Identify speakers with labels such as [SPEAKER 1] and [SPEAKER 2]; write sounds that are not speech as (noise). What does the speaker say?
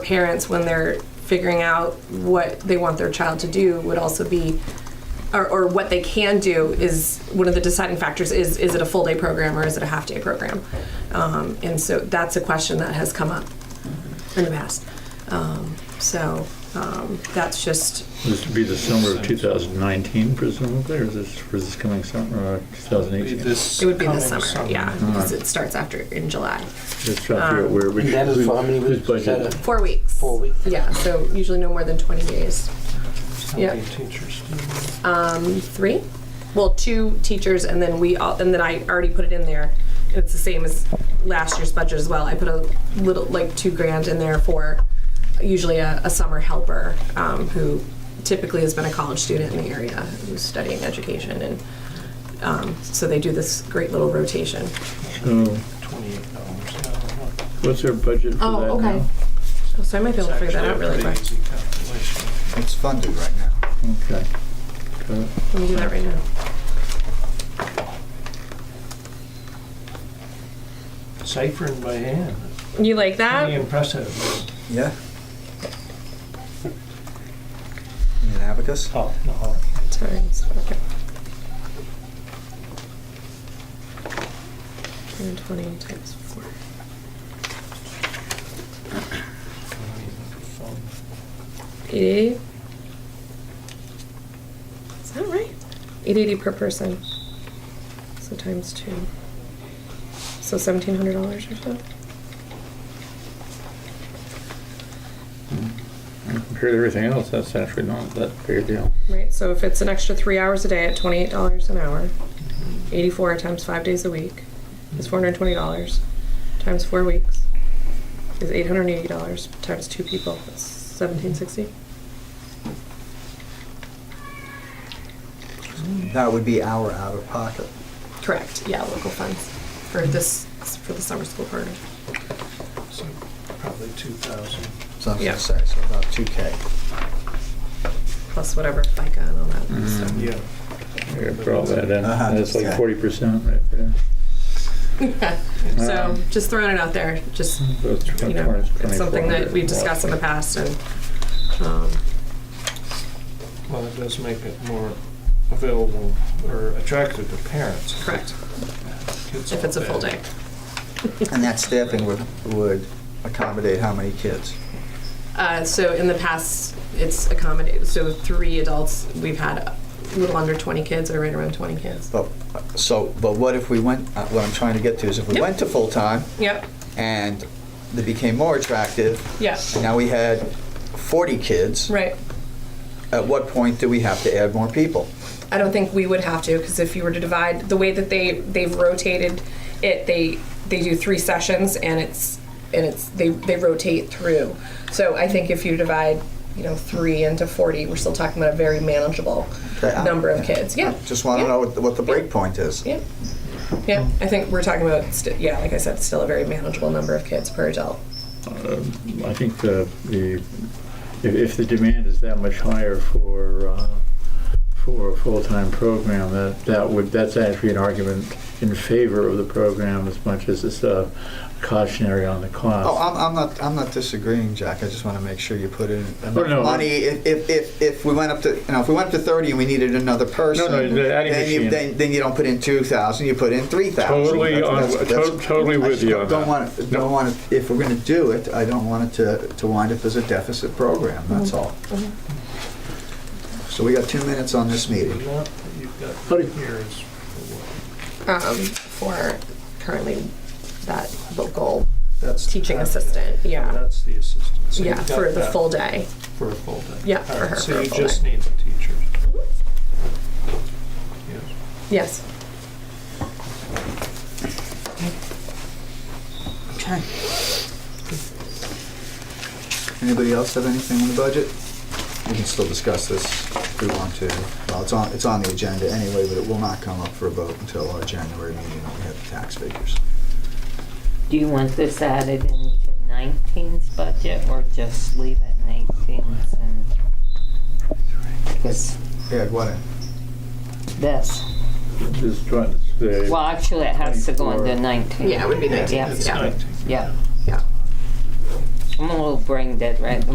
[SPEAKER 1] parents when they're figuring out what they want their child to do would also be or, or what they can do is one of the deciding factors is is it a full day program or is it a half day program um, and so that's a question that has come up in the past um, so um, that's just
[SPEAKER 2] This would be the summer of 2019 presumably, or is this, or is this coming summer, uh, or 2018?
[SPEAKER 3] This
[SPEAKER 1] it would be
[SPEAKER 3] coming
[SPEAKER 1] this summer, yeah because it starts after in july
[SPEAKER 2] Just trying to figure out where we
[SPEAKER 3] And that Um, is for how many
[SPEAKER 2] whose
[SPEAKER 3] weeks? Is that
[SPEAKER 2] budget?
[SPEAKER 3] a-
[SPEAKER 1] four weeks
[SPEAKER 3] Four weeks?
[SPEAKER 1] yeah so usually no more than 20 days
[SPEAKER 3] How
[SPEAKER 1] Yeah.
[SPEAKER 3] many teachers do you have?
[SPEAKER 1] three well two teachers and then we all and then i already put it in there it's the same as last year's budget as well i put a little like two grand in there for usually a, a summer helper um, who typically has been a college student in the area who's studying education and um, so they do this great little rotation
[SPEAKER 2] So
[SPEAKER 3] Twenty-eight dollars. I don't know.
[SPEAKER 2] what's our budget for that now?
[SPEAKER 1] Oh, okay. Oh, so i might be
[SPEAKER 3] It's
[SPEAKER 1] able to figure that
[SPEAKER 3] actually a
[SPEAKER 1] out really quick
[SPEAKER 3] pretty easy calculation.
[SPEAKER 4] It's funded right now.
[SPEAKER 2] Okay. Got it.
[SPEAKER 1] let me do that right now
[SPEAKER 3] Ciphering by hand,
[SPEAKER 1] you like
[SPEAKER 3] pretty
[SPEAKER 1] that
[SPEAKER 3] impressive.
[SPEAKER 4] Yeah. Need an abacus?
[SPEAKER 3] Oh, no.
[SPEAKER 1] times okay. 120 times 4 Eight eighty. Is that right? Eight eighty per person. So times two. So seventeen hundred dollars or so.
[SPEAKER 2] Compared to everything else, that's actually not that big a deal.
[SPEAKER 1] Right. So if it's an extra three hours a day at twenty eight dollars an hour, eighty four times five days a week is four hundred twenty dollars. Times four weeks is eight hundred eighty dollars. Times two people is seventeen sixty.
[SPEAKER 4] That would be our out of pocket.
[SPEAKER 1] Correct. Yeah, local funds for this for the summer school program.
[SPEAKER 3] So Probably two thousand.
[SPEAKER 4] So I'm
[SPEAKER 1] Yeah.
[SPEAKER 4] gonna say, so about two K.
[SPEAKER 1] plus whatever FICA and all that stuff.
[SPEAKER 3] Yeah.
[SPEAKER 2] Here, Draw that in,
[SPEAKER 4] Uh-huh.
[SPEAKER 2] that's like
[SPEAKER 4] Yeah.
[SPEAKER 2] 40% right there.
[SPEAKER 1] (laughs) So
[SPEAKER 2] Um,
[SPEAKER 1] just throwing it out there, just
[SPEAKER 2] So it's
[SPEAKER 1] you know,
[SPEAKER 2] 20,
[SPEAKER 1] it's something that we've discussed in the past, and um,
[SPEAKER 3] Well, it does make it more available or attractive to parents.
[SPEAKER 1] correct
[SPEAKER 3] Kids
[SPEAKER 1] if
[SPEAKER 3] all
[SPEAKER 1] it's a full
[SPEAKER 3] day.
[SPEAKER 1] day.
[SPEAKER 4] (laughs)
[SPEAKER 1] (laughs)
[SPEAKER 4] And that staffing would, would accommodate how many kids?
[SPEAKER 1] Uh, so in the past, it's accommodated. So three adults, we've had a little under 20 kids, or right around 20 kids.
[SPEAKER 4] But, so, but what if we went, uh, what I'm trying to get to is if we
[SPEAKER 1] Yep.
[SPEAKER 4] went to full-time
[SPEAKER 1] Yep.
[SPEAKER 4] and they became more attractive,
[SPEAKER 1] Yeah.
[SPEAKER 4] and now we had forty kids,
[SPEAKER 1] Right.
[SPEAKER 4] at what point do we have to add more people?
[SPEAKER 1] I don't think we would have to because if you were to divide the way that they they've rotated it, they they do three sessions and it's and it's they they rotate through. So I think if you divide you know three into forty, we're still talking about a very manageable
[SPEAKER 4] Okay, I-
[SPEAKER 1] number of
[SPEAKER 4] yeah.
[SPEAKER 1] kids. Yeah,
[SPEAKER 4] Just wanna
[SPEAKER 1] Yeah.
[SPEAKER 4] know what, the- what the break point is.
[SPEAKER 1] Yeah, yeah. I think we're talking about st- yeah, like I said, still a very manageable number of kids per adult.
[SPEAKER 2] I think the, the, if, if the demand is that much higher for, uh, for a full-time program, that, that would, that's actually an argument in favor of the program as much as it's uh, cautionary on the cost.
[SPEAKER 4] Oh, I'm, I'm not, I'm not disagreeing, Jack. I just want to make sure you put in
[SPEAKER 2] Oh, no.
[SPEAKER 4] enough money. If, if, if, if we went up to, you know, if we went up to thirty and we needed another person,
[SPEAKER 2] No, no, the adding
[SPEAKER 4] then, you,
[SPEAKER 2] machine.
[SPEAKER 4] then, then you don't put in two thousand, you put in three thousand.
[SPEAKER 2] Totally on- to- totally with you on
[SPEAKER 4] Don't
[SPEAKER 2] that.
[SPEAKER 4] want, it- don't want, it- if we're going to do it, I don't want it to, to wind up as a deficit program. That's all. So we got two minutes on this
[SPEAKER 3] The
[SPEAKER 4] meeting.
[SPEAKER 3] amount that you've got
[SPEAKER 2] Howdy.
[SPEAKER 3] here is for what?
[SPEAKER 1] Um, for currently that local
[SPEAKER 4] That's
[SPEAKER 1] teaching assistant,
[SPEAKER 3] And
[SPEAKER 1] yeah,
[SPEAKER 3] That's the assistant. So
[SPEAKER 1] yeah,
[SPEAKER 3] you've got
[SPEAKER 1] for the
[SPEAKER 3] that
[SPEAKER 1] full day.
[SPEAKER 3] For a full day.
[SPEAKER 1] Yeah, for
[SPEAKER 3] All right,
[SPEAKER 1] her, for
[SPEAKER 3] So
[SPEAKER 1] a
[SPEAKER 3] you
[SPEAKER 1] full
[SPEAKER 3] just
[SPEAKER 1] day. Mm-hmm.
[SPEAKER 3] need the teachers. Yes.
[SPEAKER 1] Yes.
[SPEAKER 4] Okay. Anybody else have anything on the budget? We can still discuss this if we want to. Well, it's on, it's on the agenda anyway, but it will not come up for a vote until our January meeting when we have the tax figures.
[SPEAKER 5] Do you want this added into 19's budget or just leave it in 18's and? Because
[SPEAKER 4] Yeah, what, in?
[SPEAKER 5] this,
[SPEAKER 2] Just trying to say-
[SPEAKER 5] well, actually it has to go into 19.
[SPEAKER 1] Yeah, it would be
[SPEAKER 5] Yeah.
[SPEAKER 1] nineteen.
[SPEAKER 3] It's
[SPEAKER 1] Yeah.
[SPEAKER 3] 19.
[SPEAKER 5] Yeah.
[SPEAKER 1] Yeah.
[SPEAKER 5] I'm a little brain dead right